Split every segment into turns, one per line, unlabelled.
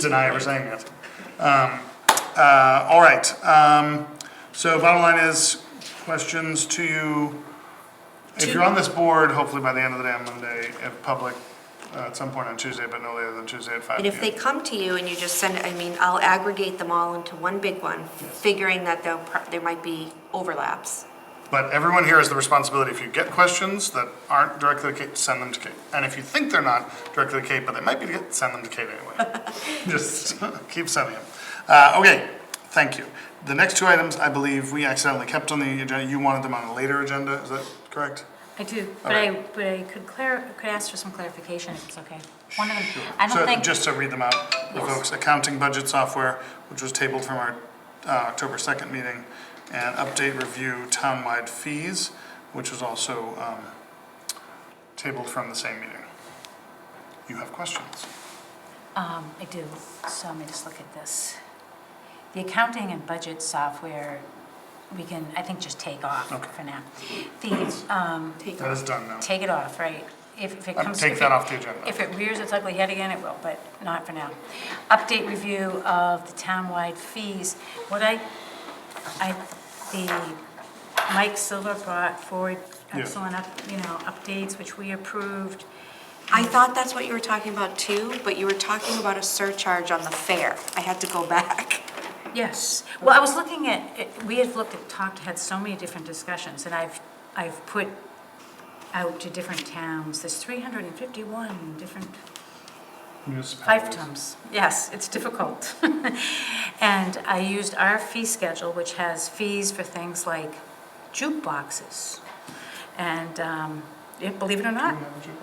deny ever saying it. Um, uh, All right, um, so bottom line is, questions to you. If you're on this board, hopefully by the end of the day on Monday, at public, uh, at some point on Tuesday, but no later than Tuesday at five.
And if they come to you and you just send, I mean, I'll aggregate them all into one big one, figuring that there, there might be overlaps.
But everyone here has the responsibility, if you get questions that aren't directly to Kate, send them to Kate. And if you think they're not directly to Kate, but they might be, to Kate, send them to Kate anyway. Just keep sending them. Uh, okay, thank you. The next two items, I believe we accidentally kept on the agenda, you wanted them on a later agenda, is that correct?
I do, but I, but I could clar, could ask for some clarification if it's okay. One of them, I
So
don't think,
Just to read them out, the folks, accounting budget software, which was tabled from our uh, October 2nd meeting, and update review townwide fees, which was also um, tabled from the same meeting. You have questions?
um, I do, so let me just look at this. The accounting and budget software, we can, I think, just take off for now. The, um,
That is done now.
take it off, right? If if it
Um,
comes.
Take
if
that
it-
off the agenda.
If it rears its ugly head again, it will, but not for now. Update review of the townwide fees. What I, I, the, Mike Silver brought forward
Yeah.
excellent, up you know, updates, which we approved.
I thought that's what you were talking about too, but you were talking about a surcharge on the fare. I had to go back.
Yes. Well, I was looking at, it- we had looked at, talked, had so many different discussions, and I've, I've put out to different towns, there's 351 different Five times, yes, it's difficult. And I used our fee schedule, which has fees for things like jukeboxes. And, um, yeah, believe it or not,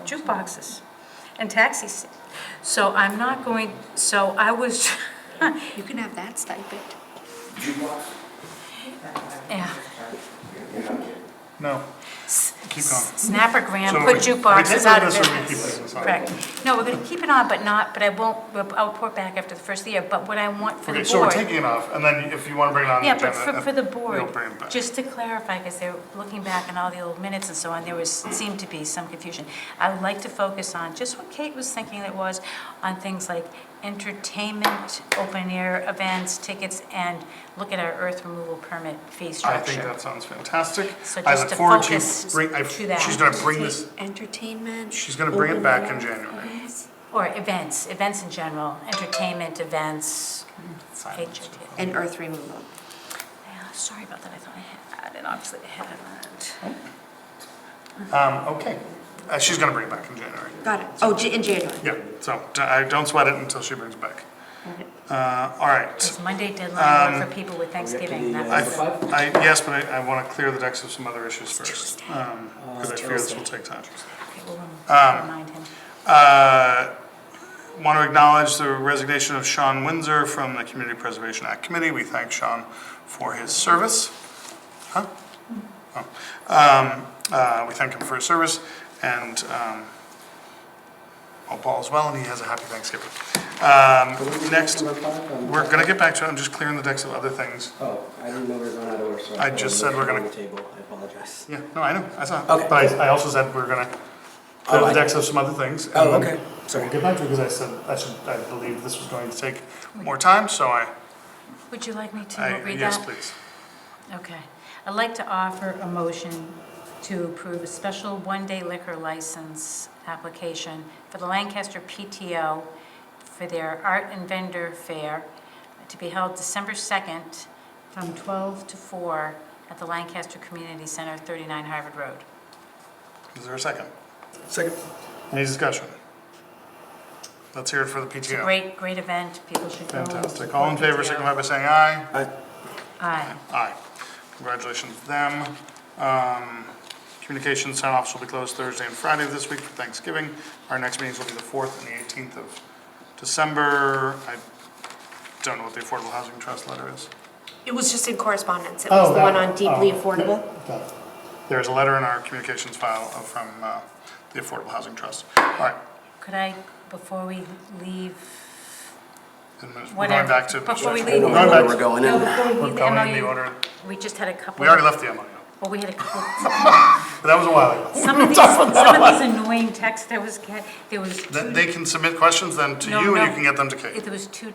jukeboxes and taxis. So I'm not going, so I was,
You can have that stipend.
yeah,
No, keep going.
Snapper Graham
So
put
we- we take
jukeboxes out of
this or we keep
business.
this on?
Correct. No, we're gonna keep it on, but not, but I won't, I'll report back after the first of the year, but what I want for the
Okay,
board.
so we're taking it off, and then if you want to bring it on the
Yeah,
agenda.
but for,
uh,
for the
We'll
board,
bring it back.
just to clarify, because they're looking back on all the old minutes and so on, there was, seemed to be some confusion. I would like to focus on just what Kate was thinking that was, on things like entertainment, open-air events, tickets, and look at our earth removal permit fee
I think
structure.
that sounds fantastic.
So
I
just
look
to
forward to
focus
bring- I-
to that.
She's going to bring this,
Entertainment.
she's going to bring it back in January.
Or events, events in general, entertainment, events,
Silence.
HOT.
And earth removal.
Yeah, Sorry about that, I thought I had it, obviously I haven't.
Um, okay, Uh, she's gonna bring it back in January.
Got it. Oh, J- in January.
Yeah, so d- I don't sweat it until she brings it back. Uh, all right.
It's Monday deadline work for people with Thanksgiving,
Um, I,
that's.
I, yes, but I, I wanna clear the decks of some other issues first, um, cause I fear this will take time.
Okay, we'll
Um,
remind him.
Uh, want to acknowledge the resignation of Sean Windsor from the Community Preservation Act Committee. We thank Sean for his service. Huh? Oh. Um, uh, we thank him for his service and, um, hope all is well and he has a happy Thanksgiving. Um, next, we're gonna get back to, it. I'm just clearing the decks of other things.
Oh, I didn't know we were going out of order, so.
I just said we're gonna-
On the table, I apologize.
Yeah, no, I know, I saw. it.
Okay.
But I, I also said we're gonna clear
Oh,
the
I-
decks of some other things. Um, and
Oh,
then-
okay, sorry.
Get back to it because I said, I should, I believe this was going to take more time, so I,
Would you like me to
I,
read that?
yes, please.
Okay. I'd like to offer a motion to approve a special one-day liquor license application for the Lancaster PTO for their art and vendor fair to be held December 2nd from 12 to 4 at the Lancaster Community Center, 39 Harvard Road.
Is there a second?
Second.
Any discussion? Let's hear it for the
It's a
PTO.
great, great event. People should go. and
Fantastic. All in
support
favor,
PTO.
signify by saying aye.
I,
Aye.
Aye. Congratulations to them. Um, Communications sign-offs will be closed Thursday and Friday of this week for Thanksgiving. Our next meetings will be the 4th and the 18th of December. I don't know what the Affordable Housing Trust letter is.
It was just in correspondence. It
Oh,
was the
that
one
one.
on deeply
Oh.
affordable.
Got it. There's a letter in our communications file from uh, the Affordable Housing Trust. All right.
Could I, before we leave,
And We're going
whatever,
back to.
before we
I
leave.
don't
Going
know
back
where we're going
No,
in.
before we
We're
leave
going in the
the MOU,
order.
we just had a couple.
We already left the MOU.
Well, we had a couple,
But that was a while ago.
Some of these, some of these annoying texts I was get, there was
Then
two-
They can submit questions then to
No,
you and
no.
you can get them to Kate.
there was two